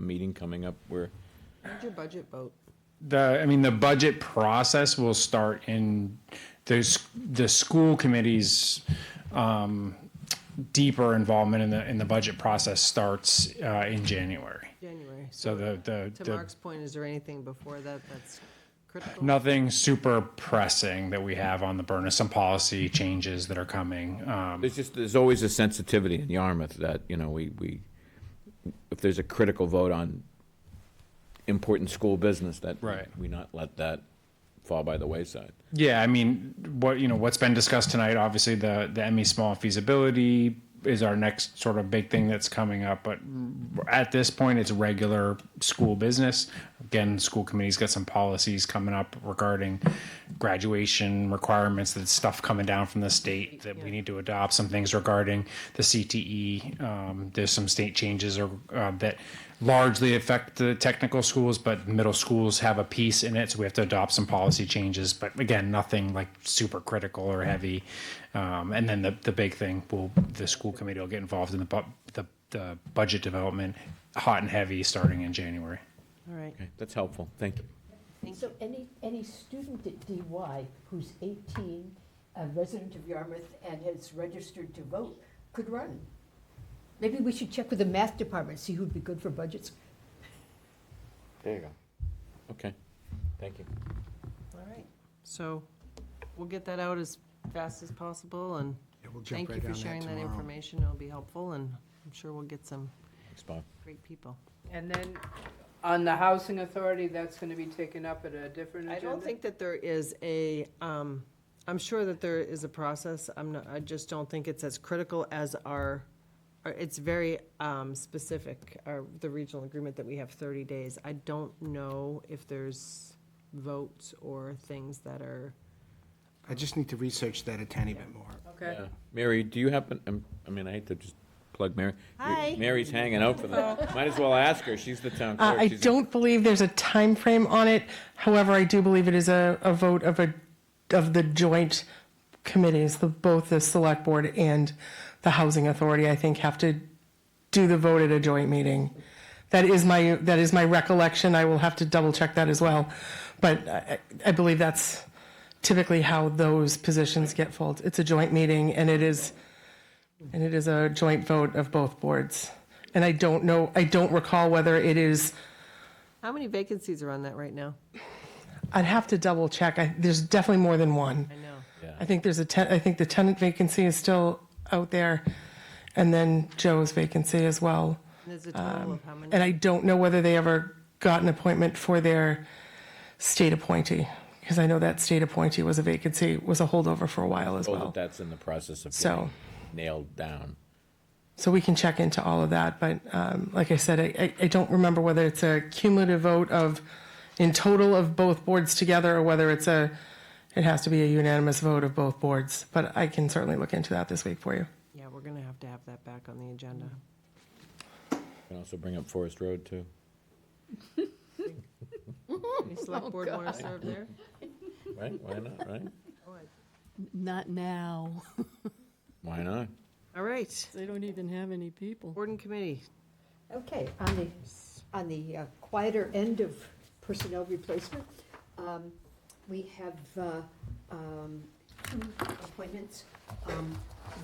meeting coming up where, When's your budget vote? the I mean the budget process will start in there's the school committee's um, deeper involvement in the in the budget process starts uh, in January. January. So the the, To the Mark's point, is there anything before that that's critical? nothing super pressing that we have on the burner. Some policy changes that are coming. Um, there's just, there's always a sensitivity in Yarmouth that, you know, we, we, if there's a critical vote on important school business, that Right. we not let that fall by the wayside. Yeah, I mean, what you know, what's been discussed tonight. Obviously, the the ME small feasibility is our next sort of big thing that's coming up. But at this point, it's regular school business. Again, school committee's got some policies coming up regarding graduation requirements. That's stuff coming down from the state that we need to adopt. Some things regarding the CTE. Um, there's some state changes or uh, that largely affect the technical schools, but middle schools have a piece in it, so we have to adopt some policy changes. But again, nothing like super critical or heavy. Um, and then the, the big thing will the school committee will get involved in the, bu- the the budget development, hot and heavy, starting in January. All right. Okay, that's helpful, thank you. So any, any student at DY who's 18, a resident of Yarmouth, and has registered to vote could run. Maybe we should check with the math department, see who'd be good for budgets. There you go. Okay, thank you. All right. So we'll get that out as fast as possible and Yeah, we'll jump thank right you on for that sharing that tomorrow. information. It'll be helpful and I'm sure we'll get some Thanks, Bob. great people. And then on the housing authority, that's gonna be taken up at a different I agenda? don't think that there is a, um, I'm sure that there is a process. I'm not, I just don't think it's as critical as our, or it's very, um, specific, our, the regional agreement that we have thirty days. I don't know if there's votes or things that are, I just need to research that a tiny bit more. Uh, Okay. Yeah. Uh, Mary, do you happen, um, I mean, I hate to just plug Mary. Hi. Mary's hanging out for that. Might as well ask her, she's the town Oh. Uh, clerk. I She's- don't believe there's a time frame on it. However, I do believe it is a, a vote of a, of the joint committees, the, both the select board and the housing authority, I think, have to do the vote at a joint meeting. That is my, that is my recollection. I will have to double check that as well. But I, I believe that's typically how those positions get filled. It's a joint meeting and it is, and it is a joint vote of both boards. And I don't know, I don't recall whether it is how many vacancies are on that right now? I'd have to double check. I, there's definitely more than one. I know. I think there's a ten, I think the tenant vacancy is still out there, and then Joe's vacancy as well. There's a total of how many? And I don't know whether they ever got an appointment for their state appointee, because I know that state appointee was a vacancy, was a holdover for a while as Oh, told that well. that's in the process of So- getting nailed down. So we can check into all of that, but um, like I said, I, I, I don't remember whether it's a cumulative vote of, in total of both boards together, or whether it's a, it has to be a unanimous vote of both boards. But I can certainly look into that this week for you. Yeah, we're gonna have to have that back on the agenda. You Can also bring up Forest Road, too. Any select board wanna serve there? Right, why not, right? Not now. Why not? All right, They don't even have any people. board and committee. Okay, on the, on the uh, quieter end of personnel replacement, um, we have uh, um, two appointments. Um,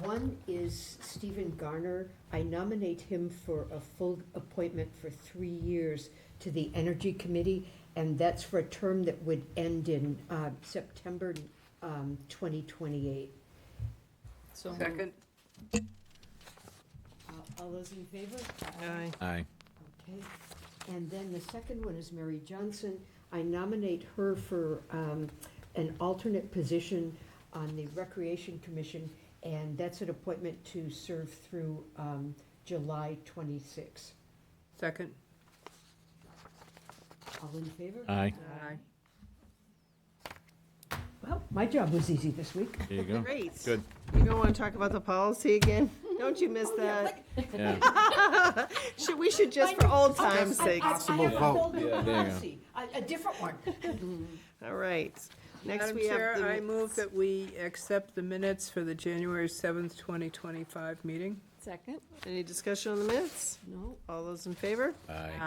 One is Stephen Garner. I nominate him for a full appointment for three years to the Energy Committee, and that's for a term that would end in uh, September um, 2028. So Second? Uh, All those in favor? Aye. Aye. Okay, and then the second one is Mary Johnson. I nominate her for um, an alternate position on the Recreation Commission, and that's an appointment to serve through um, July 26. Second? All in favor? Aye. Aye. Well, my job was easy this week. There you go. Great. Good. You don't want to talk about the policy again? Don't you Oh, miss that? Yeah. Should, we should just for old times' sake. Possible vote. Yeah, there you go. A different one. All right. Next Madam we have Chair, the I move minutes. that we accept the minutes for the January seventh, twenty twenty-five meeting. Second? Any discussion on the minutes? No. All those in favor? Aye.